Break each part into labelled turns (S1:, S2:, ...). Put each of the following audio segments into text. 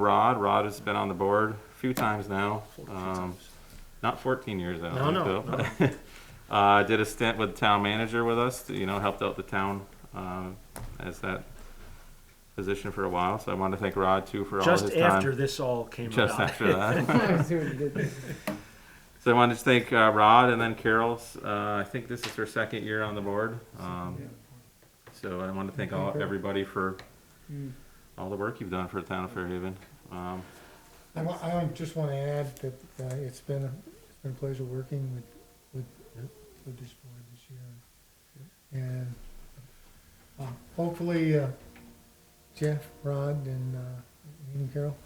S1: Rod, Rod has been on the board a few times now. Um, not 14 years, I
S2: No,
S1: don't
S2: no,
S1: think, though. Uh, did a stint with town manager with us, you know, helped out the town, um, as that position for a while. So I want to thank Rod too for all his time.
S2: Just after this all came
S1: Just
S2: about.
S1: after that.
S3: Well,
S1: So I wanted to thank uh, Rod and then Carol's. Uh, I think this is her second year on the board. Um, so I want to thank all everybody for
S3: Mm.
S1: all the work you've done for the town of Fairhaven. Um,
S3: I wa- I want- just want to add that uh, it's been, a- it's been a pleasure working with, with, with this board this year. And uh, hopefully uh, Jeff, Rod, and uh, me and Carol,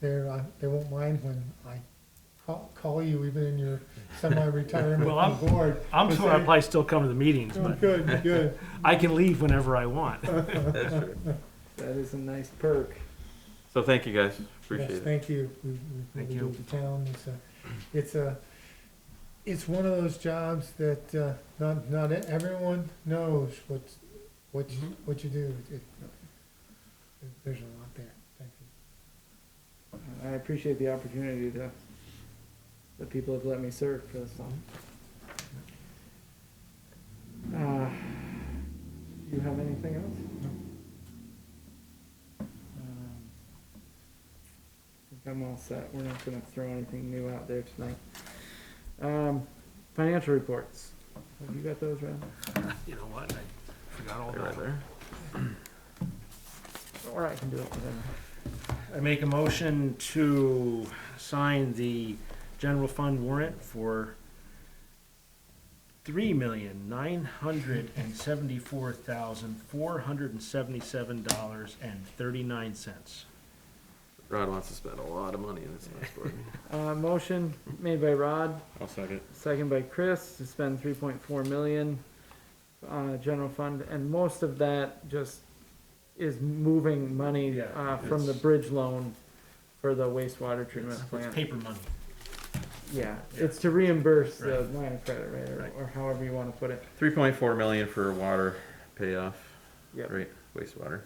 S3: they're, uh, they won't mind when I call, call you even in your semi-retirement
S2: Well, I'm-
S3: board.
S2: I'm
S3: Just
S2: sure I'll
S3: say,
S2: probably still come to the meetings,
S3: "Oh,
S2: but
S3: Good, good.
S2: I can leave whenever I want.
S4: That is a nice perk.
S1: so thank you guys. Appreciate
S3: Yes,
S1: it.
S3: Thank you. We- we-
S2: Thank
S3: we
S2: you.
S3: do The town, it's a, it's a, it's one of those jobs that, uh, not, not everyone knows what, what, you- what you do. It- There's a lot there. Thank you.
S4: I appreciate the opportunity to, the people have let me serve for this long. Uh, Do you have anything else?
S3: No.
S4: Um, I think I'm all set. We're not gonna throw anything new out there tonight. Um, financial reports. Have you got those, Ron?
S2: You know what? I forgot all
S1: They're right
S2: about it.
S1: there.
S4: Or I can do it whatever.
S2: I make a motion to sign the general fund warrant for three million nine hundred and seventy-four thousand four hundred and seventy-seven dollars and thirty-nine cents.
S1: Rod wants to spend a lot of money in this last board meeting.
S4: Uh, motion made by Rod,
S1: I'll second.
S4: Second by Chris to spend three point four million on a general fund, and most of that just is moving money,
S2: Yeah,
S4: uh, from the
S2: it's-
S4: bridge loan for the wastewater treatment
S2: It's it's
S4: plant.
S2: paper money.
S4: Yeah,
S2: yeah.
S4: it's to reimburse the
S2: Right.
S4: line of credit, right, or,
S2: Right.
S4: or however you wanna put it.
S1: 3.4 million for water payoff,
S4: Yep,
S1: right? Wastewater.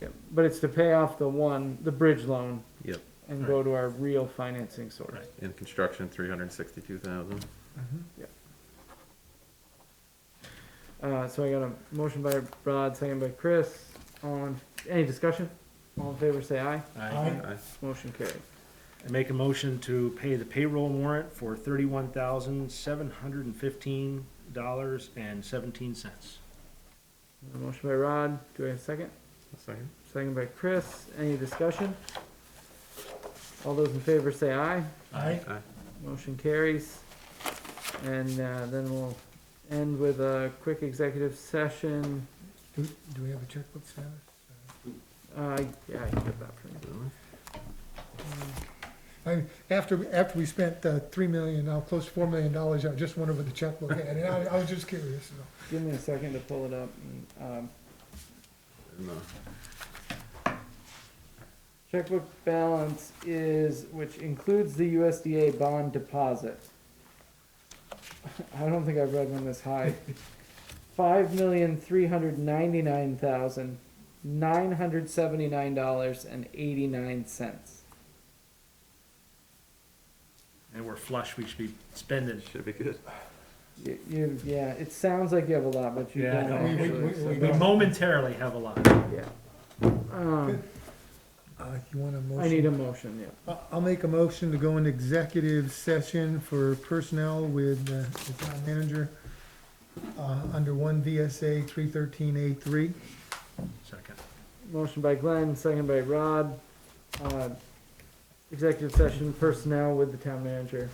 S4: yep. But it's to pay off the one, the bridge loan
S1: Yep.
S4: and go to our real financing source.
S2: Right.
S1: In construction, 362,000.
S4: Uh, so I got a motion by Rod, second by Chris. On, any discussion? All in favor, say aye.
S2: I-
S1: Aye.
S4: Motion carried.
S2: I make a motion to pay the payroll warrant for thirty-one thousand, seven hundred and fifteen dollars and seventeen cents.
S4: A Motion by Rod, do I have a second?
S1: I'll second.
S4: Second by Chris, any discussion? All those in favor say aye,
S3: Aye.
S1: Aye.
S4: motion carries. And, uh, then we'll end with a quick executive session,
S3: Do, do we have a checkbook status?
S4: uh, yeah, I can get that for you.
S3: I, after, after we spent uh, three million, now close to four million dollars, I just wondered what the checkbook had. And I, I was just curious, you know.
S4: Give me a second to pull it up, and, um,
S1: No.
S4: checkbook balance is, which includes the USDA bond deposit. I don't think I've read one this high. Five million three hundred ninety-nine thousand nine hundred seventy-nine dollars and eighty-nine cents.
S2: And we're flush, we should be spending.
S1: Should be good.
S4: You, you, yeah, it sounds like you have a lot, but you
S2: Yeah,
S4: don't
S2: no,
S3: we- we-
S4: actually.
S3: we-
S4: so-
S3: we
S2: We
S3: don't.
S2: momentarily have a lot.
S4: yeah. Um,
S3: Uh, you want a motion?
S4: I need a motion. Yeah.
S3: I- I'll make a motion to go into executive session for personnel with uh, the town manager uh, under one VSA three thirteen A three.
S2: Second.
S4: Motion by Glenn, second by Rod. Uh, executive session personnel with the town manager.